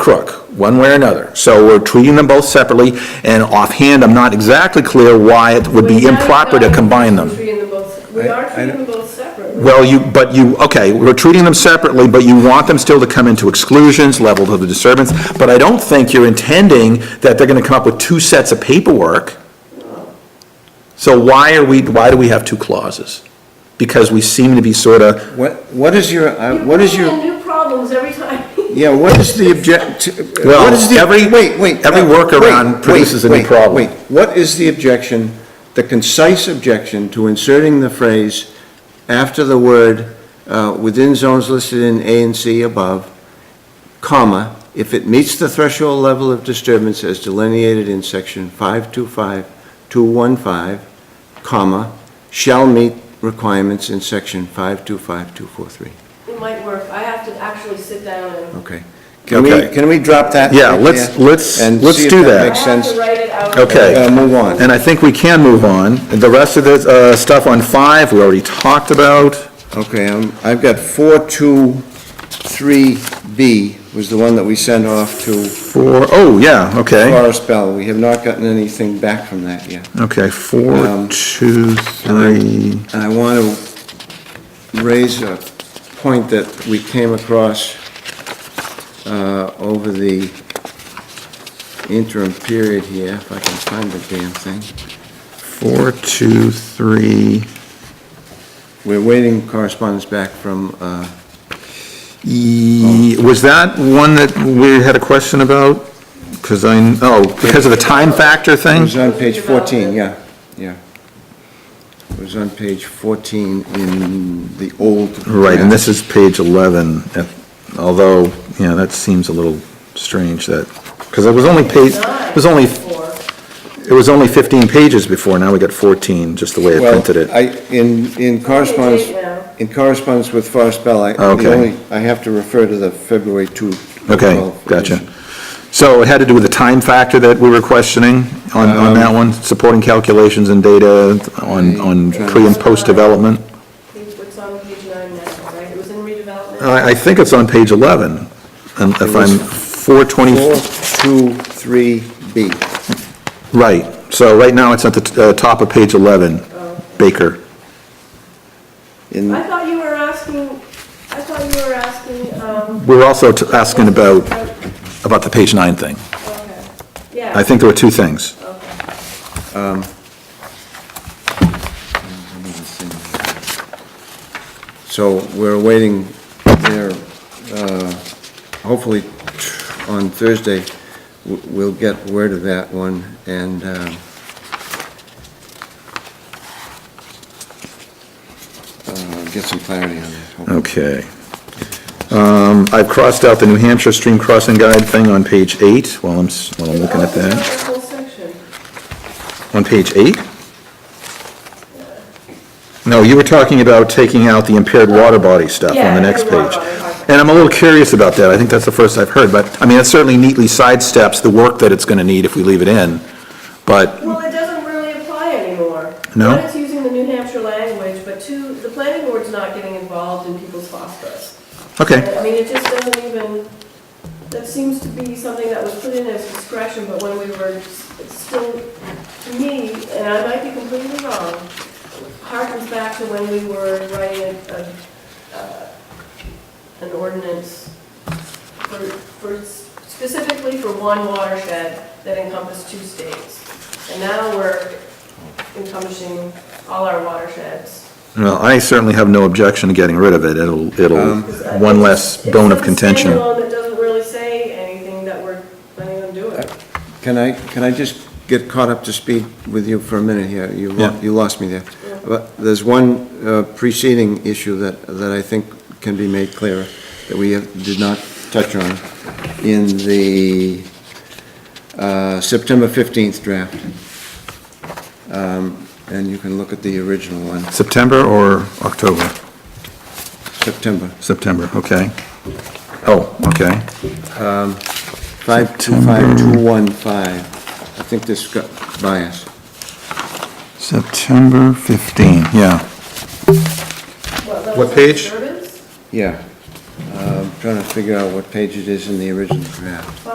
crook, one way or another. So we're treating them both separately, and offhand, I'm not exactly clear why it would be We're not- improper to not combine them. treating them both- We I- are I treating them don't- both separately. Well, you, but you, okay, we're treating them separately, but you want them still to come into exclusions, level to the disturbance, but I don't think you're intending that they're gonna come up with two sets of paperwork. So why are we, why do we have two clauses? Because we seem to be sort of, What, what is your, uh, You what is bring your, in new problems every time. yeah, what is the object, Well, what is the, every- wait, wait. every no, workaround wait, produces a new wait, wait, problem. Wait, what is the objection, the concise objection to inserting the phrase after the word, uh, within zones listed in A and C above, comma, if it meets the threshold level of disturbance as delineated in section 525.215, comma, shall meet requirements in section 525.243? It might work. I have to actually sit down and. Okay. Can we, Okay. can we drop that? Yeah, right let's- there let's- and let's see if do that. I Makes have sense. to write it out. Okay. Uh, Move on. and I think we can move on. The rest of this, uh, stuff on five, we already talked about. Okay, um, I've got 423B was the one that we sent off to Four, oh, yeah, okay, Forest Bell. We have not gotten anything back from that yet. okay, four, Um, two, three. And I want to raise a point that we came across uh, over the interim period here, if I can find the damn thing. Four, two, three, We're waiting correspondence back from uh, E- was that one that we had a question about? Because I, oh, because of the time factor It thing? was on page 14, yeah, yeah. It was on page 14 in the old. Right, and this is page 11, eh, although, you know, that seems a little strange that, because it was only page, it was only, Four. it was only 15 pages before, now we got 14, just the way I Well, printed it. I, in, in correspondence, Page eight now. in correspondence with Forest Bell, I, Okay. the only, I have to refer to the February 2. Okay, 12 gotcha. edition. So it had to do with the time factor that we were questioning on, on that one, supporting calculations and data on, on pre and post development? Page- What's on page nine now, right? It was in redevelopment. Oh, I, I think it's on page 11, and if I'm 420, 423B, right. So right now, it's at the uh, top of page 11, Baker. in, I thought you were asking, I thought you were asking, um. Oh, We're also t- asking about, about the page nine thing. Okay. Yeah. I think there were two things. Okay. so we're waiting there, uh, hopefully t- on Thursday, w- we'll get word of that one, and, um, uh, get some clarity on that. hopefully. Okay. Um, I've crossed out the New Hampshire Stream Crossing Guide thing on page eight, while I'm, s- while I'm looking at Oh, it's that. not the whole section. On page eight? No, you were talking about taking out the impaired water body stuff on Yeah, the next impaired page. water body, okay. And I'm a little curious about that, I think that's the first I've heard, but, I mean, it certainly neatly sidesteps the work that it's gonna need if we leave it in, but, Well, it doesn't really apply anymore. No? One, it's using the New Hampshire language, but two, the planning board's not getting involved in people's phosphorus. okay, I mean, it just doesn't even, that seems to be something that was put in as discretion, but when we were s- still, to me, and I might be completely wrong, harkens back to when we were writing a, a, uh, an ordinance for, for, s- specifically for one watershed that encompassed two states. And now we're encompassing all our watersheds. well, I certainly have no objection to getting rid of it, it'll, Um, it'll, one less bone of contention. It's a standalone that doesn't really say anything that we're planning on doing. Can I, can I just get caught up to speed with you for a minute here? You, lo- Yeah. you lost me there. But there's one uh, preceding issue that, that I think can be made clearer, that we have- did not touch on in the uh, September 15th draft. Um, And you can look at the original one, September or October? September September, okay. Oh, okay, 525215. I think this got biased. September 15, yeah. What What level of page? disturbance? Yeah. Uh, I'm Trying to figure out what page it is in the original draft.